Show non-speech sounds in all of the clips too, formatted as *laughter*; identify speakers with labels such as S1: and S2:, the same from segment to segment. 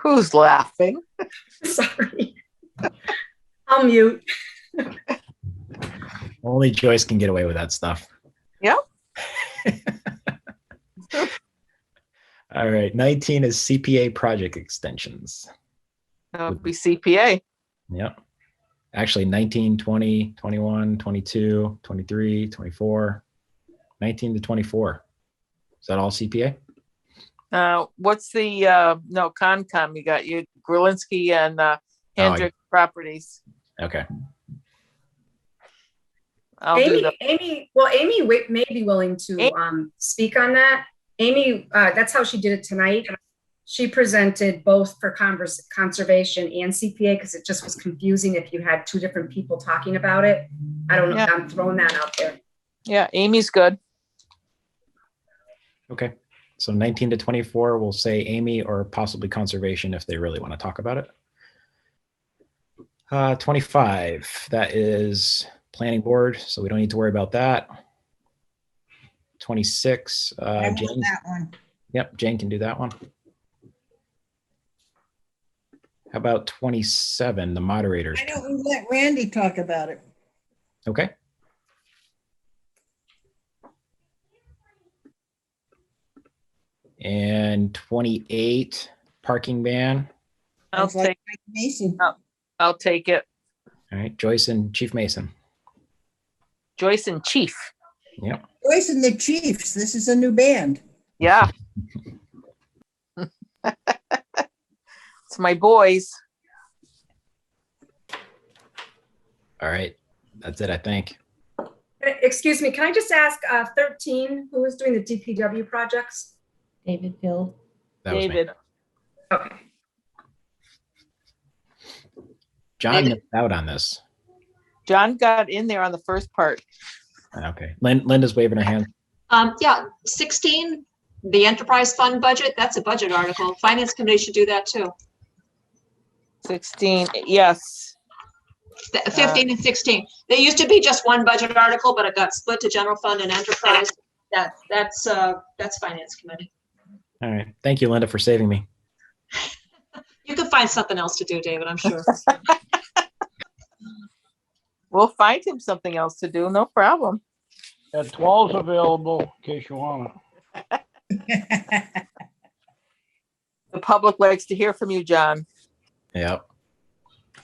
S1: Who's laughing?
S2: *laughs* Sorry. I'll mute.
S3: Only Joyce can get away with that stuff.
S1: Yep.
S3: *laughs* All right. 19 is CPA project extensions. Oh,
S1: That would be CPA.
S3: Yep. Actually, 19, 20, 21, 22, 23, 24, 19 to 24. Is that all CPA?
S1: Uh, what's the, uh, no, Concom, you got your Grulinski and, uh,
S3: Oh, yeah.
S1: Hendrick Properties.
S3: Okay.
S1: I'll do
S2: Amy,
S1: the-
S2: Amy, well, Amy wi- may be willing to
S1: Amy-
S2: um, speak on that. Amy, uh, that's how she did it tonight. She presented both for convers- conservation and CPA because it just was confusing if you had two different people talking about it. I don't know,
S1: Yeah.
S2: I'm throwing that out there.
S1: Yeah, Amy's good.
S3: Okay. So 19 to 24, we'll say Amy or possibly conservation if they really want to talk about it. Uh, 25, that is planning board, so we don't need to worry about that. 26,
S4: I
S3: uh,
S4: want
S3: Jane,
S4: that one.
S3: yep, Jane can do that one. How about 27, the moderators?
S4: I don't, we let Randy talk about it.
S3: Okay. And 28, parking ban.
S1: I'll
S4: Sounds like
S1: take,
S4: Mike Mason.
S1: I'll take it.
S3: All right, Joyce and Chief Mason.
S1: Joyce and Chief.
S4: Joyce and the Chiefs, this is a new band. *laughs*
S3: *laughs*
S1: Yeah. It's my boys.
S3: All right, that's it, I think.
S2: Uh, Excuse me, can I just ask uh, 13, who was doing the DPW projects?
S5: David Hill.
S3: That was me.
S1: David.
S2: Okay,
S3: John
S1: David.
S3: missed out on this.
S1: John got in there on the first part.
S3: Okay, Lin- Linda's waving her hand.
S6: Um, yeah, sixteen, the enterprise fund budget, that's a budget article. Finance committee should do that too.
S1: Sixteen, yes.
S6: Th- Fifteen and sixteen. They used to be just one budget article, but it got split to general fund and enterprise. That, that's, uh, that's finance committee.
S3: All right, thank you, Linda, for saving me.
S6: You can find something else to do, David, I'm
S7: *laughs*
S6: sure.
S1: We'll find him something else to do, no problem.
S8: That twelve's available in case you want it.
S1: The public likes to hear from you, John.
S3: Yep.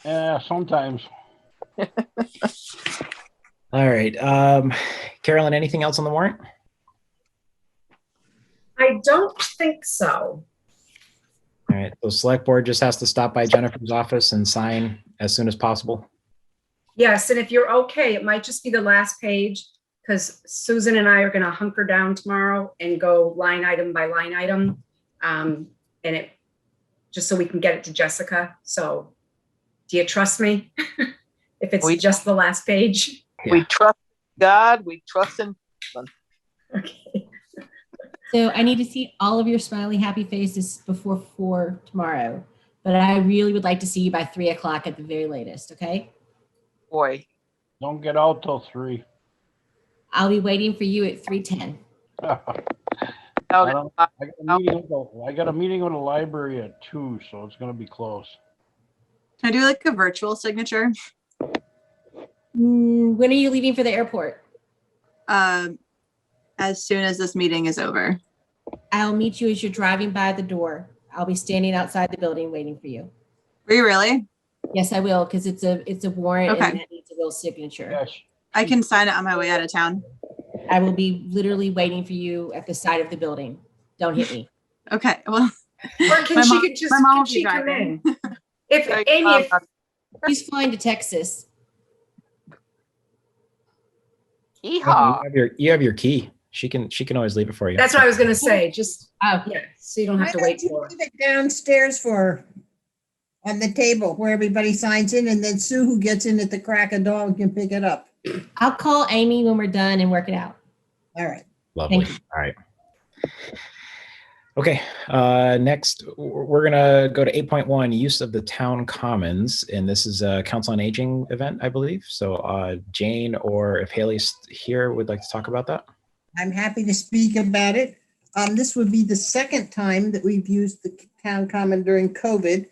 S8: Yeah, Eh, sometimes.
S3: All right, um, Carolyn, anything else on the warrant?
S2: I don't think so.
S3: All right, so select board just has to stop by Jennifer's office and sign as soon as possible.
S2: Yes, and if you're okay, it might just be the last page because Susan and I are going to hunker down tomorrow and go line item by line item. Um, and it, just so we can get it to Jessica. So do you trust me? *laughs* If it's
S1: We-
S2: just the last
S7: *laughs*
S2: page?
S1: We trust God, we trust in,
S2: Okay.
S5: So I need to see all of your smiley, happy faces before four tomorrow. But I really would like to see you by three o'clock at the very latest, okay?
S1: boy.
S8: Don't get out till three. *laughs*
S5: I'll be waiting for you at three ten.
S8: I
S1: Out
S8: don't-
S1: at-
S8: got a meeting with the- I got a meeting with the library at two, so it's gonna be close.
S7: Can I do like a virtual signature?
S5: Mm, When are you leaving for the airport?
S7: Um, as soon as this meeting is over.
S5: I'll meet you as you're driving by the door. I'll be standing outside the building waiting for you.
S7: Were you really?
S5: Yes, I will, because it's a it's a warrant
S7: Okay.
S5: and that needs a real signature.
S8: Yes,
S7: I can sign it on my way out of town.
S5: I will be literally waiting for you at the side of the building. Don't hit me.
S7: Okay. Well,
S2: Or can
S7: my
S2: she
S7: mom-
S2: could just,
S7: my mom
S2: can
S7: will be
S2: she come in?
S7: driving.
S2: If,
S7: *laughs*
S1: Sorry,
S2: Amy,
S1: John,
S2: if,
S1: uh,
S5: He's flying to Texas.
S1: Yeehaw.
S3: You have your, you have your key. She can, she can always leave it for you.
S2: that's what I was going to say, just,
S5: Oh,
S2: yeah, so you don't
S4: Why
S2: have to wait
S4: don't you
S2: for it.
S4: leave it downstairs for her? On the table where everybody signs in and then Sue who gets in at the crack of dawn can pick it up.
S5: I'll call Amy when we're done and work it out.
S4: All right.
S3: Lovely.
S5: Thank
S3: All right. Okay, uh, next, w- we're gonna go to eight point one, use of the town commons, and this is a council on aging event, I believe. So, uh, Jane, or if Haley's here, would like to talk about that.
S4: I'm happy to speak about it. Um, this would be the second time that we've used the town common during COVID